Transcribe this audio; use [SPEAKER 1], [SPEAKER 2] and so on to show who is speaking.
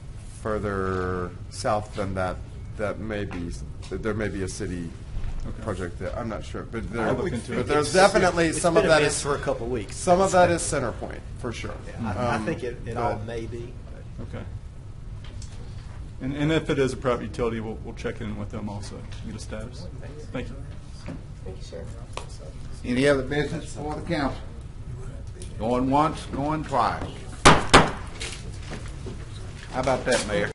[SPEAKER 1] further south than that, that may be, that there may be a city
[SPEAKER 2] Okay.
[SPEAKER 1] project there, I'm not sure, but there,
[SPEAKER 2] I'll look into
[SPEAKER 1] but
[SPEAKER 2] it.
[SPEAKER 1] there's
[SPEAKER 3] It's-
[SPEAKER 1] definitely,
[SPEAKER 3] it's
[SPEAKER 1] some
[SPEAKER 3] been
[SPEAKER 1] of that
[SPEAKER 3] a mess
[SPEAKER 1] is,
[SPEAKER 3] for a couple of weeks.
[SPEAKER 1] some of that is center point, for sure.
[SPEAKER 3] Yeah, I, I
[SPEAKER 1] Um,
[SPEAKER 3] think it, it all may be.
[SPEAKER 2] Okay. And, and if it is a private utility, we'll, we'll check in with them also, get a status. Thank you.
[SPEAKER 4] Any other business for the council? Going once, going twice. How about that, Mayor?